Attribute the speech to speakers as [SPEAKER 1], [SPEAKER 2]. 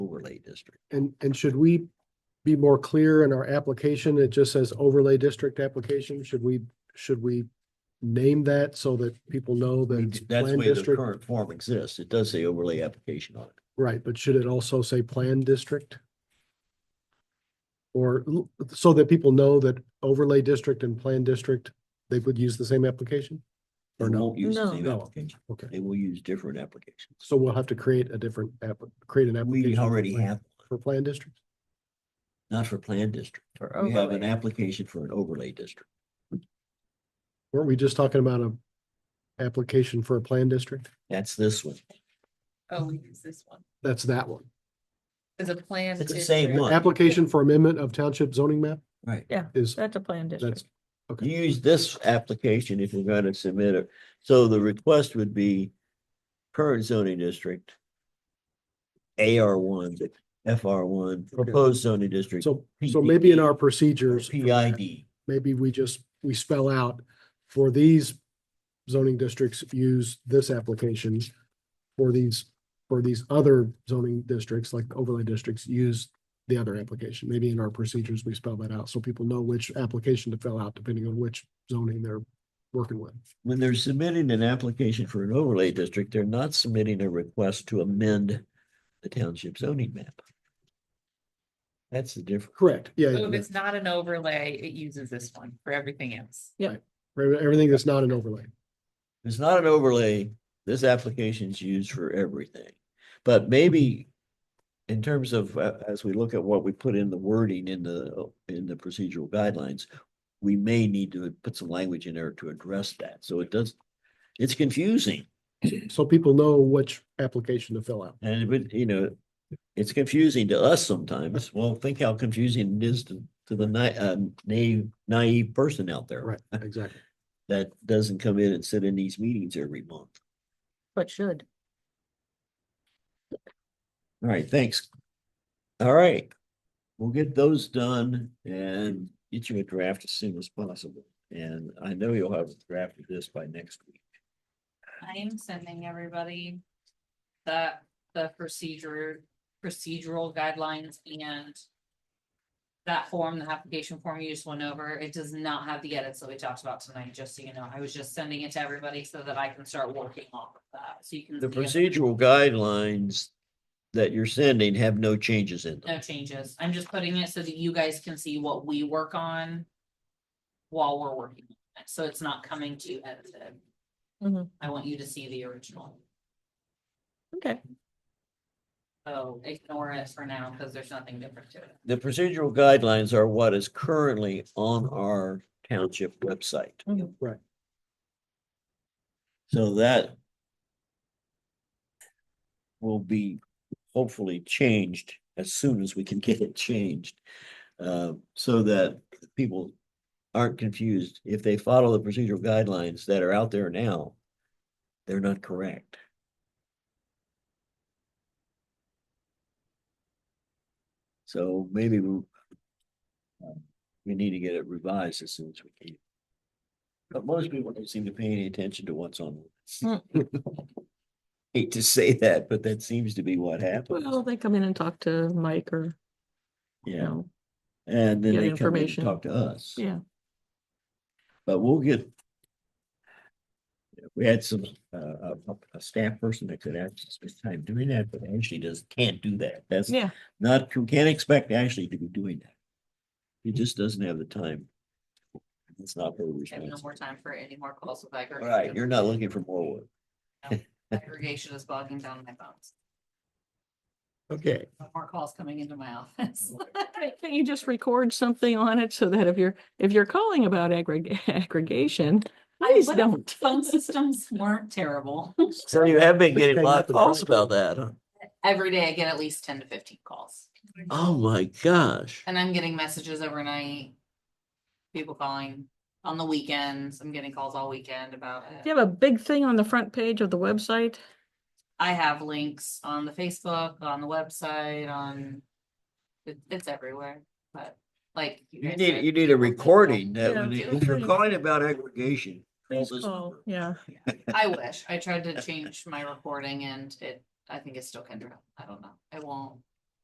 [SPEAKER 1] overlay district.
[SPEAKER 2] And, and should we be more clear in our application? It just says overlay district application. Should we, should we name that so that people know that it's
[SPEAKER 1] That's the
[SPEAKER 2] plan
[SPEAKER 1] way the
[SPEAKER 2] district?
[SPEAKER 1] current form exists. It does say overlay application on it.
[SPEAKER 2] Right, but should it also say plan district? Or l- so that people know that overlay district and plan district, they would use the same application? Or
[SPEAKER 1] They
[SPEAKER 2] no?
[SPEAKER 1] won't use the
[SPEAKER 3] No.
[SPEAKER 1] same
[SPEAKER 2] No.
[SPEAKER 1] application.
[SPEAKER 2] Okay.
[SPEAKER 1] They will use different applications.
[SPEAKER 2] So we'll have to create a different app, create an application.
[SPEAKER 1] We
[SPEAKER 2] for
[SPEAKER 1] already
[SPEAKER 2] plan-
[SPEAKER 1] have,
[SPEAKER 2] For plan districts?
[SPEAKER 1] not for planned district.
[SPEAKER 3] For
[SPEAKER 1] We have an
[SPEAKER 3] overlay.
[SPEAKER 1] application for an overlay district.
[SPEAKER 2] Weren't we just talking about a application for a plan district?
[SPEAKER 1] That's this one.
[SPEAKER 3] Oh, we use this one.
[SPEAKER 2] That's that one.
[SPEAKER 3] As a plan.
[SPEAKER 1] It's the same
[SPEAKER 3] district.
[SPEAKER 1] one.
[SPEAKER 2] Application for amendment of township zoning map
[SPEAKER 1] Right.
[SPEAKER 2] is,
[SPEAKER 4] That's a plan
[SPEAKER 2] that's,
[SPEAKER 4] district.
[SPEAKER 2] okay.
[SPEAKER 1] Use this application if you're gonna submit it. So the request would be current zoning district. AR one, FR one, proposed zoning district.
[SPEAKER 2] So, so maybe in our procedures,
[SPEAKER 1] PID.
[SPEAKER 2] maybe we just, we spell out for these zoning districts, use this application. For these, for these other zoning districts, like overlay districts, use the other application. Maybe in our procedures, we spell that out so people know which application to fill out depending on which zoning they're working with.
[SPEAKER 1] when they're submitting an application for an overlay district, they're not submitting a request to amend the township zoning map. That's the difference.
[SPEAKER 2] Correct, yeah.
[SPEAKER 3] So if
[SPEAKER 2] yeah.
[SPEAKER 3] it's not an overlay, it uses this one for everything else.
[SPEAKER 2] For Everything that's not an overlay.
[SPEAKER 1] If It's not an overlay. This application's used for everything. But maybe in terms of, uh, as we look at what we put in the wording in the, in the procedural guidelines, we may need to put some language in there to address that. So it does, it's confusing.
[SPEAKER 2] So people know which application to fill out.
[SPEAKER 1] And it would, you know, it's confusing to us sometimes. Well, think how confusing it is to, to the ni- uh, naive, naive person out there
[SPEAKER 2] Right, exactly.
[SPEAKER 1] that doesn't come in and sit in these meetings every month.
[SPEAKER 4] But should.
[SPEAKER 1] All right, thanks. All right. We'll get those done and get you a draft as soon as possible. And I know you'll have a draft of this by next week.
[SPEAKER 3] I am sending everybody the, the procedure, procedural guidelines and that form, the application form you just went over, it does not have the edits that we talked about tonight, just so you know. I was just sending it to everybody so that I can start working off of that, so you can.
[SPEAKER 1] The
[SPEAKER 3] see if
[SPEAKER 1] procedural guidelines that you're sending have no changes in
[SPEAKER 3] No
[SPEAKER 1] them.
[SPEAKER 3] changes. I'm just putting it so that you guys can see what we work on while we're working, on it, so it's not coming to you edited.
[SPEAKER 4] Mhm.
[SPEAKER 3] I want you to see the original.
[SPEAKER 4] Okay.
[SPEAKER 3] So ignore it for now because there's nothing different to it.
[SPEAKER 1] The procedural guidelines are what is currently on our township website.
[SPEAKER 4] Mhm.
[SPEAKER 2] Right.
[SPEAKER 1] So that will be hopefully changed as soon as we can get it changed. Uh, so that people aren't confused. If they follow the procedural guidelines that are out there now, they're not correct. So maybe we um, we need to get it revised as soon as we can. But most people don't seem to pay any attention to what's on. Hate to say that, but that seems to be what
[SPEAKER 4] Well,
[SPEAKER 1] happens.
[SPEAKER 4] they come in and talk to Mike or, you
[SPEAKER 1] Yeah,
[SPEAKER 4] know,
[SPEAKER 1] and then they come
[SPEAKER 4] get
[SPEAKER 1] in and
[SPEAKER 4] information.
[SPEAKER 1] talk to us.
[SPEAKER 4] yeah,
[SPEAKER 1] But we'll get. We had some, uh, a, a- a staff person that could actually spend time doing that, but Ashley does, can't do that. That's
[SPEAKER 4] yeah.
[SPEAKER 1] not, you can't expect Ashley to be doing that. He just doesn't have the time. It's not her
[SPEAKER 3] And no more
[SPEAKER 1] responsibility.
[SPEAKER 3] time for any more calls with aggregation.
[SPEAKER 1] Right, you're not looking for more work.
[SPEAKER 3] Aggregation is bogging down my bones.
[SPEAKER 1] Okay.
[SPEAKER 3] No More calls coming into my office.
[SPEAKER 4] Can you just record something on it so that if you're, if you're calling about aggreg- aggregation, please
[SPEAKER 3] what if-
[SPEAKER 4] don't.
[SPEAKER 3] Phone systems weren't terrible.
[SPEAKER 1] So you have been
[SPEAKER 2] getting a lot of calls
[SPEAKER 1] about that, huh?
[SPEAKER 3] Every day I get at least ten to fifteen calls.
[SPEAKER 1] Oh, my gosh.
[SPEAKER 3] And I'm getting messages overnight. People calling on the weekends. I'm getting calls all weekend about
[SPEAKER 4] Do
[SPEAKER 3] it.
[SPEAKER 4] you have a big thing on the front page of the website?
[SPEAKER 3] I have links on the Facebook, on the website, on. It, it's everywhere, but like.
[SPEAKER 1] You
[SPEAKER 3] guys
[SPEAKER 1] need,
[SPEAKER 3] said,
[SPEAKER 1] you need a recording that
[SPEAKER 4] Yeah,
[SPEAKER 1] when you-
[SPEAKER 4] do
[SPEAKER 1] if you're
[SPEAKER 4] it.
[SPEAKER 1] calling about aggregation. call
[SPEAKER 4] Please
[SPEAKER 1] this
[SPEAKER 4] call,
[SPEAKER 1] number.
[SPEAKER 4] Oh, yeah.
[SPEAKER 3] I wish. I tried to change my recording and it, I think it's still Kendra. I don't know. It won't.